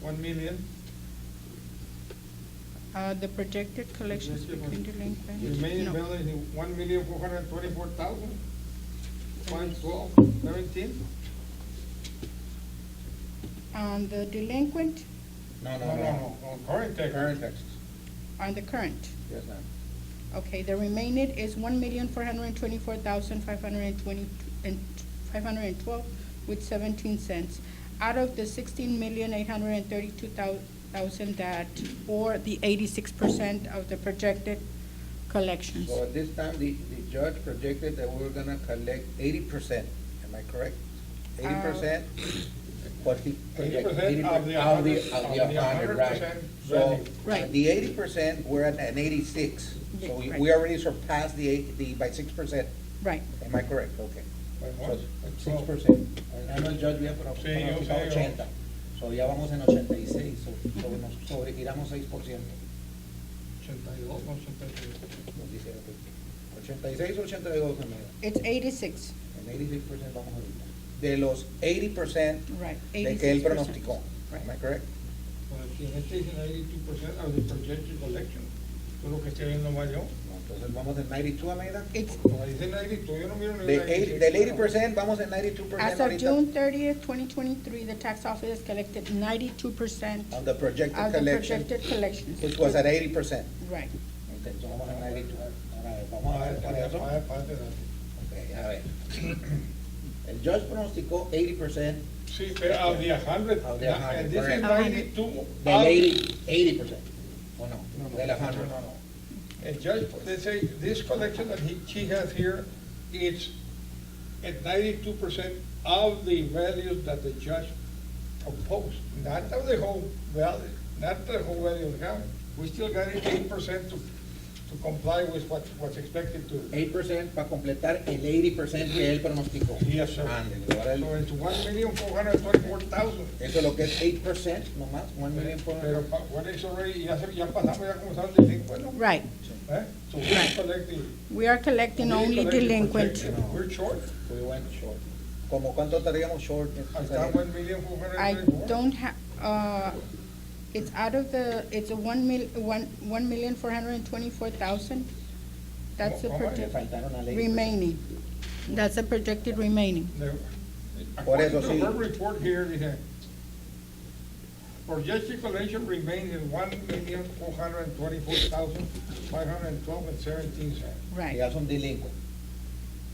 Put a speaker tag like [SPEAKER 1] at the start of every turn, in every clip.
[SPEAKER 1] one million.
[SPEAKER 2] Uh, the projected collections
[SPEAKER 1] Yes, yes,
[SPEAKER 2] between delinquent.
[SPEAKER 1] Remaining
[SPEAKER 2] no.
[SPEAKER 1] balance is one million four hundred and twenty-four thousand, five twelve, seventeen.
[SPEAKER 2] On Um, the delinquent,
[SPEAKER 3] No,
[SPEAKER 1] No, no, no, on current tax.
[SPEAKER 3] Current taxes,
[SPEAKER 2] on the current.
[SPEAKER 3] yes, ma'am.
[SPEAKER 2] Okay, the remaining is one million four hundred and twenty-four thousand five hundred and twenty, and five hundred and twelve with seventeen cents. Out of the sixteen million eight hundred and thirty-two thousand that, or the eighty-six percent of the projected collections.
[SPEAKER 3] So at this time, the, the judge projected that we were gonna collect eighty percent, am I correct? Eighty
[SPEAKER 2] Um,
[SPEAKER 3] percent? What he
[SPEAKER 1] Eighty
[SPEAKER 3] projected?
[SPEAKER 1] percent of the
[SPEAKER 3] 80%
[SPEAKER 1] hundred,
[SPEAKER 3] Of the hundred,
[SPEAKER 1] 100%
[SPEAKER 3] right. So,
[SPEAKER 1] value.
[SPEAKER 2] Right.
[SPEAKER 3] the eighty percent, we're at an eighty-six, so we, we
[SPEAKER 2] Right.
[SPEAKER 3] already surpassed the eight, the, by six percent,
[SPEAKER 2] Right,
[SPEAKER 3] am I correct? Okay.
[SPEAKER 1] By what? By
[SPEAKER 3] Six
[SPEAKER 1] 12.
[SPEAKER 3] percent. Ano el judge había propuesto
[SPEAKER 1] Sí, yo
[SPEAKER 3] para
[SPEAKER 1] sé, yo-
[SPEAKER 3] 80. So ya vamos en 86, so- sobre, nos- sobre, giramos 6%.
[SPEAKER 1] Ochenta y dos, ochenta y tres.
[SPEAKER 3] nos dice aquí. 86 o 82 en medio.
[SPEAKER 2] it's eighty-six,
[SPEAKER 3] En 86% vamos ahorita. De los 80%
[SPEAKER 2] right,
[SPEAKER 3] de
[SPEAKER 2] eighty-six percent.
[SPEAKER 3] que él pronosticó. Am I
[SPEAKER 2] Right,
[SPEAKER 3] correct?
[SPEAKER 1] Pues si en este dicen eighty-two percent of the projected collection, eso es lo que estoy viendo más yo.
[SPEAKER 3] No, entonces vamos en 92 Almeida.
[SPEAKER 2] it's,
[SPEAKER 1] Como dicen ninety-two, yo no miro ni
[SPEAKER 3] De
[SPEAKER 1] la
[SPEAKER 3] eight-
[SPEAKER 1] 86.
[SPEAKER 3] del 80% vamos en 92%
[SPEAKER 2] As of
[SPEAKER 3] ahorita.
[SPEAKER 2] June thirtieth, twenty twenty-three, the tax office collected ninety-two percent
[SPEAKER 3] On the projected
[SPEAKER 2] of the
[SPEAKER 3] collection,
[SPEAKER 2] projected collections.
[SPEAKER 3] which was at 80%.
[SPEAKER 2] Right.
[SPEAKER 3] Entonces vamos en 92. Ahora, vamos a
[SPEAKER 1] Ah,
[SPEAKER 3] ver para eso.
[SPEAKER 1] ah, ah, ah,
[SPEAKER 3] Ok, a ver. El judge pronosticó 80%
[SPEAKER 1] Sí, pero of the hundred,
[SPEAKER 3] Of the
[SPEAKER 1] and this is
[SPEAKER 3] correct.
[SPEAKER 1] ninety-two.
[SPEAKER 3] del 80, 80%. ¿O no?
[SPEAKER 1] No, no,
[SPEAKER 3] Del 100.
[SPEAKER 1] no, no, no. And Judge, they say this collection that he, she has here, it's at ninety-two percent of the values that the judge proposed, not of the whole value, not the whole value of the county. We still got eight percent to, to comply with what, what's expected to.
[SPEAKER 3] 8% para completar el 80% que él pronosticó.
[SPEAKER 1] Yes, sir.
[SPEAKER 3] Ándele, ahora el-
[SPEAKER 1] So it's one million four hundred twenty-four thousand.
[SPEAKER 3] Eso es lo que es 8% nomás, 1 million por
[SPEAKER 1] Pero, pa- what is already, ya, se- ya pasamos, ya comenzamos el delincuente, ¿no?
[SPEAKER 2] Right.
[SPEAKER 1] Eh? So we collect the.
[SPEAKER 2] We are collecting only
[SPEAKER 1] we collect the
[SPEAKER 2] delinquent.
[SPEAKER 1] protection. We're short.
[SPEAKER 3] We went short. ¿Como cuánto estaríamos short? en
[SPEAKER 1] I've
[SPEAKER 3] salir?
[SPEAKER 1] got one million four hundred
[SPEAKER 2] I
[SPEAKER 1] and twenty-four.
[SPEAKER 2] don't have, uh, it's out of the, it's a one mil, one, one million four hundred and twenty-four thousand. That's the
[SPEAKER 1] How much?
[SPEAKER 3] Le
[SPEAKER 2] projected
[SPEAKER 3] faltaron a ley.
[SPEAKER 2] remaining. That's the projected remaining.
[SPEAKER 1] The-
[SPEAKER 3] Por eso
[SPEAKER 1] According to
[SPEAKER 3] sí.
[SPEAKER 1] her report here, dice, projected collection remains in one million four hundred and twenty-four thousand five hundred and twelve and seventeen cents.
[SPEAKER 3] Que
[SPEAKER 2] Right.
[SPEAKER 3] ya son delincuentes.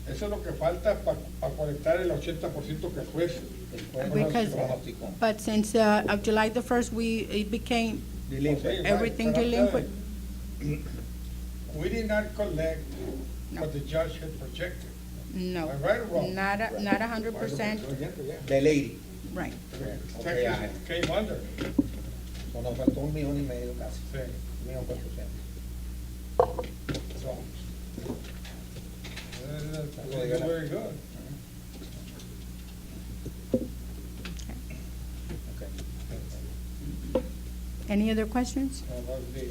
[SPEAKER 1] Eso es lo que falta para conectar el ochenta por ciento que el juez.
[SPEAKER 3] El juez
[SPEAKER 2] Because-
[SPEAKER 3] pronosticó.
[SPEAKER 2] But since, uh, of July the first, we, it became,
[SPEAKER 3] Delincuente.
[SPEAKER 2] Everything
[SPEAKER 1] But I'm telling
[SPEAKER 2] delinquent.
[SPEAKER 1] you, We did not collect
[SPEAKER 2] No.
[SPEAKER 1] what the judge had projected.
[SPEAKER 2] no.
[SPEAKER 1] Am I right or wrong?
[SPEAKER 2] Not, a- not a hundred percent,
[SPEAKER 3] Del 80.
[SPEAKER 2] right.
[SPEAKER 3] Okay, I-
[SPEAKER 1] Taxes Came under.
[SPEAKER 3] So nos faltó un millón y medio casi.
[SPEAKER 1] Sí.
[SPEAKER 3] Un millón cuatrocientos.
[SPEAKER 1] So, uh, that's Very good.
[SPEAKER 3] Okay.
[SPEAKER 2] Any other questions?
[SPEAKER 1] Uh, well, the-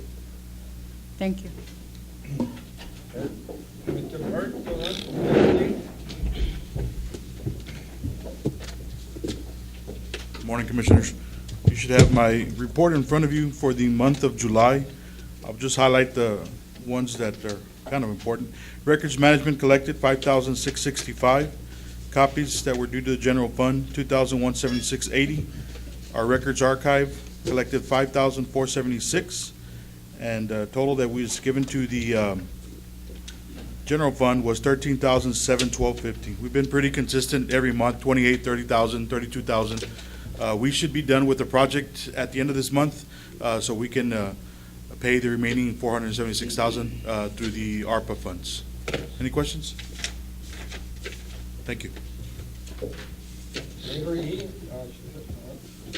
[SPEAKER 2] Thank you.
[SPEAKER 1] Mr. Burke, the last question.
[SPEAKER 4] Morning, Commissioners. You should have my report in front of you for the month of July. I'll just highlight the ones that are kind of important. Records management collected, 5,665. Copies that were due to the general fund, 2,176.80. Our records archive collected 5,476. And uh, total that was given to the um, general fund was thirteen thousand seven twelve fifty. We've been pretty consistent every month, twenty-eight, thirty thousand, thirty-two thousand. Uh, we should be done with the project at the end of this month, uh, so we can, uh, pay the remaining four hundred and seventy-six thousand, uh, through the ARPA funds. Any questions? Thank you.
[SPEAKER 1] Senator Yee, uh,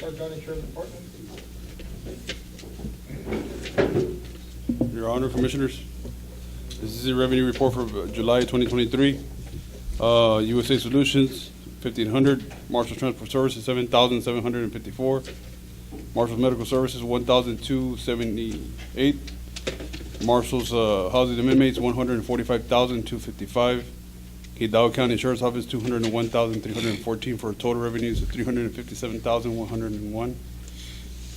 [SPEAKER 1] Sir County Sheriff's Department.
[SPEAKER 5] Your Honor, Commissioners, this is the revenue report for uh, July 2023. Uh, USA Solutions, 1,500. Marshall Transport Services, 7,754. Marshall's Medical Services, 1,278. Marshall's uh, Housing and Inmates, 145,255. Hidalgo County Insurance Office, 201,314, for a total revenues of 357,101.